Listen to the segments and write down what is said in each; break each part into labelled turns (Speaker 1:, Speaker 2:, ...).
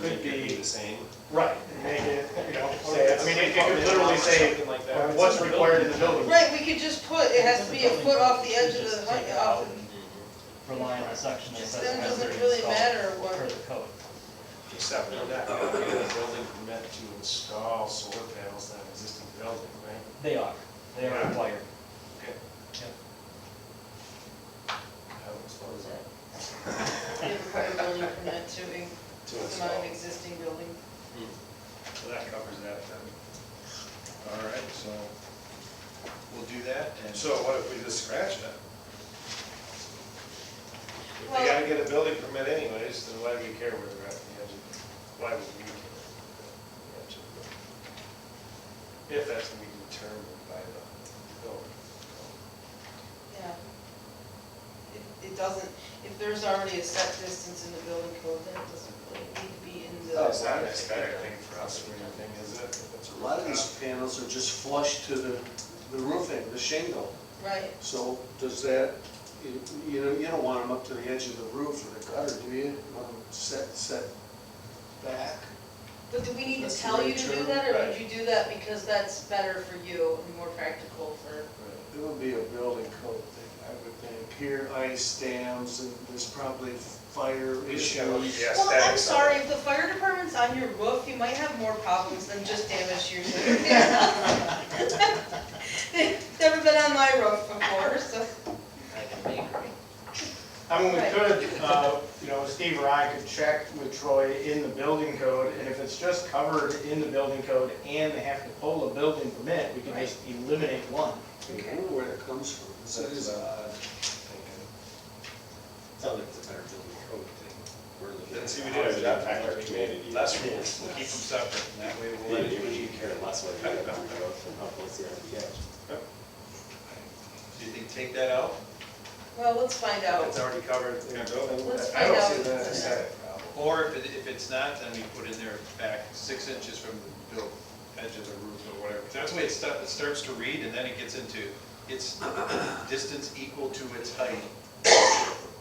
Speaker 1: could be,
Speaker 2: the same.
Speaker 1: right, and make it, you know, say, I mean, it it could literally say
Speaker 2: Something like that.
Speaker 1: what's required in the building.
Speaker 3: Right, we could just put, it has to be a foot off the edge of the, hu- off,
Speaker 4: rely on the section that
Speaker 3: just
Speaker 4: says.
Speaker 3: then
Speaker 4: it has to be
Speaker 3: doesn't really
Speaker 4: installed
Speaker 3: matter what.
Speaker 4: Per the code.
Speaker 2: Except for that, you know, the building permit to install solar panels on existing building, right?
Speaker 4: They are, they are required.
Speaker 2: Okay.
Speaker 4: Yep.
Speaker 2: I would suppose that.
Speaker 3: They require building permit to, in-
Speaker 2: To
Speaker 3: on
Speaker 2: install.
Speaker 3: an existing building.
Speaker 5: So that covers that then. All right, so we'll do that and.
Speaker 6: So what if we just scratch it?
Speaker 2: If
Speaker 3: Well-
Speaker 2: they gotta get a building permit anyways, then why do we care where they're at the edge of, why would we care? the edge of the- If that's gonna be determined by the building.
Speaker 3: Yeah. It- It doesn't, if there's already a set distance in the building code, then it doesn't really need to be in the.
Speaker 6: Oh,
Speaker 2: It's not an aesthetic thing for us or anything, is it? If it's
Speaker 7: A lot of
Speaker 2: rooftop.
Speaker 7: these panels are just flush to the, the roofing, the shingle.
Speaker 3: Right,
Speaker 7: So does that, you- you know, you don't want them up to the edge of the roof or the gutter, do you? You Want them set, set back?
Speaker 3: but do we need to
Speaker 7: That's
Speaker 3: tell you
Speaker 7: very
Speaker 3: to do
Speaker 7: true.
Speaker 3: that, or would
Speaker 2: Right.
Speaker 3: you do that because that's better for you and more practical for?
Speaker 7: It would be a building code thing, I would think. Here, ice dams, and there's probably fire issues.
Speaker 2: Yes,
Speaker 3: Well,
Speaker 2: that
Speaker 3: I'm
Speaker 2: is-
Speaker 3: sorry, if the fire department's on your roof, you might have more problems than just damage to your roof. Never been on my roof before, so.
Speaker 1: I mean, we
Speaker 3: Right.
Speaker 1: could, uh, you know, Steve or I could check with Troy in the building code, and if it's just covered in the building code and they have to pull a building permit, we could just eliminate one.
Speaker 7: I don't know where that comes from. That is odd.
Speaker 8: uh, Sounds like it's a better building code thing. We're looking
Speaker 5: Let's see, we
Speaker 8: at
Speaker 5: did
Speaker 8: how
Speaker 5: a job
Speaker 8: impact
Speaker 5: factor
Speaker 8: our
Speaker 5: community.
Speaker 8: community.
Speaker 5: Less rules, we'll keep them separate, and that way we'll.
Speaker 8: Yeah, maybe we should care less what kind of building code and how close they are to the edge.
Speaker 5: Do you think take that out?
Speaker 3: Well, let's find out.
Speaker 5: It's already covered in the building.
Speaker 3: Oh. Let's
Speaker 2: I
Speaker 3: find
Speaker 2: don't
Speaker 3: out.
Speaker 2: see that as an aesthetic problem.
Speaker 5: Or if it, if it's not, then we put in there back six inches from the built edge of the roof or whatever. That's the way it starts, it starts to read, and then it gets into, it's distance equal to its height.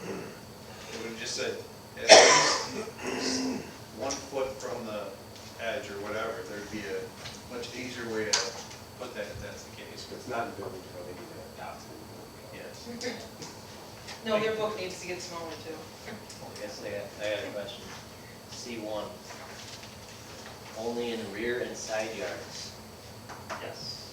Speaker 5: It would have just said, at least one foot from the edge or whatever, there'd be a much easier way to put that if that's the case,
Speaker 8: If it's not a building code, they need to adopt it. in the building code.
Speaker 5: yes.
Speaker 3: No, their book needs to get smaller too.
Speaker 9: Yes, I got, I got a question. C one, only in rear and side yards.
Speaker 4: Yes.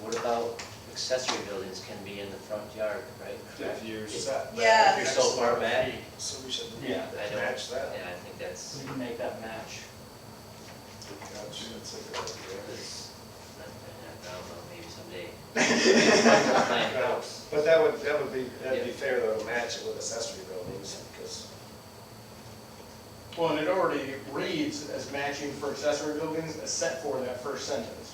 Speaker 9: What about accessory buildings can be in the front yard, right? Correct?
Speaker 2: If you're set. back,
Speaker 3: Yeah.
Speaker 9: If you're so far back,
Speaker 2: So we should
Speaker 4: Yeah.
Speaker 9: I don't, yeah, I
Speaker 2: match that.
Speaker 4: So
Speaker 9: think that's,
Speaker 4: we can make that match.
Speaker 2: Gotcha, that's a good idea.
Speaker 9: that's, I don't know, maybe someday. Find a house.
Speaker 2: Uh, But that would, that would be, that'd be fair though, to match it with accessory buildings, because
Speaker 1: Well, and it already reads as matching for accessory buildings, except for that first sentence.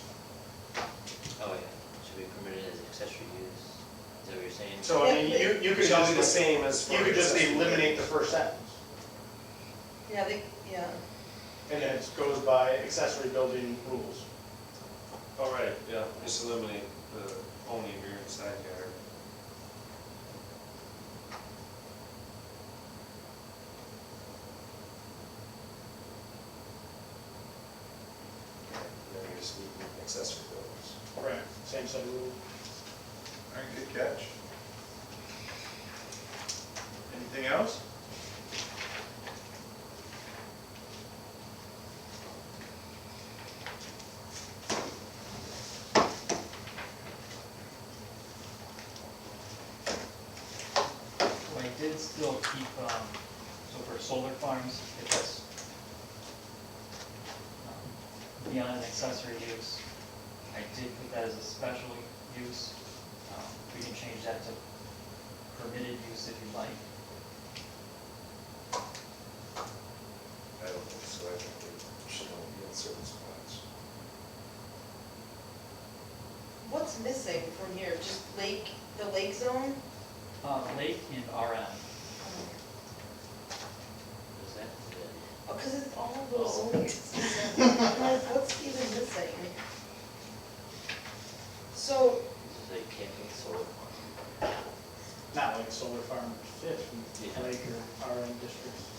Speaker 9: Oh, yeah, should be permitted as accessory use, is that what you're saying?
Speaker 1: So, I mean, you, you
Speaker 2: it
Speaker 1: could
Speaker 2: should be the
Speaker 1: just,
Speaker 2: same as.
Speaker 1: you
Speaker 2: for
Speaker 1: could just
Speaker 2: accessory
Speaker 1: eliminate the
Speaker 2: buildings.
Speaker 1: first sentence,
Speaker 3: Yeah, they, yeah.
Speaker 1: and then it goes by accessory building rules.
Speaker 2: All right, yeah, just eliminate the only rear and side yard. Now you're just leaving accessory buildings.
Speaker 1: Right. Same set of rules.
Speaker 5: All right, good catch. Anything else?
Speaker 4: I did still keep, um, so for solar farms, if it's um, beyond an accessory use, I did put that as a special use. Um, We can change that to permitted use if you'd like.
Speaker 2: I don't think so, I think they should only be in certain spots.
Speaker 3: What's missing from here? Just lake, the lake zone?
Speaker 4: Uh, Lake and RM.
Speaker 9: Is that,
Speaker 3: Oh, cause it's all those
Speaker 2: Oh.
Speaker 3: zoning districts. Like, What's even missing? So,
Speaker 9: is that camping solar farm?
Speaker 1: Not like solar farm or fifth,
Speaker 9: Yeah.
Speaker 1: like your RM districts.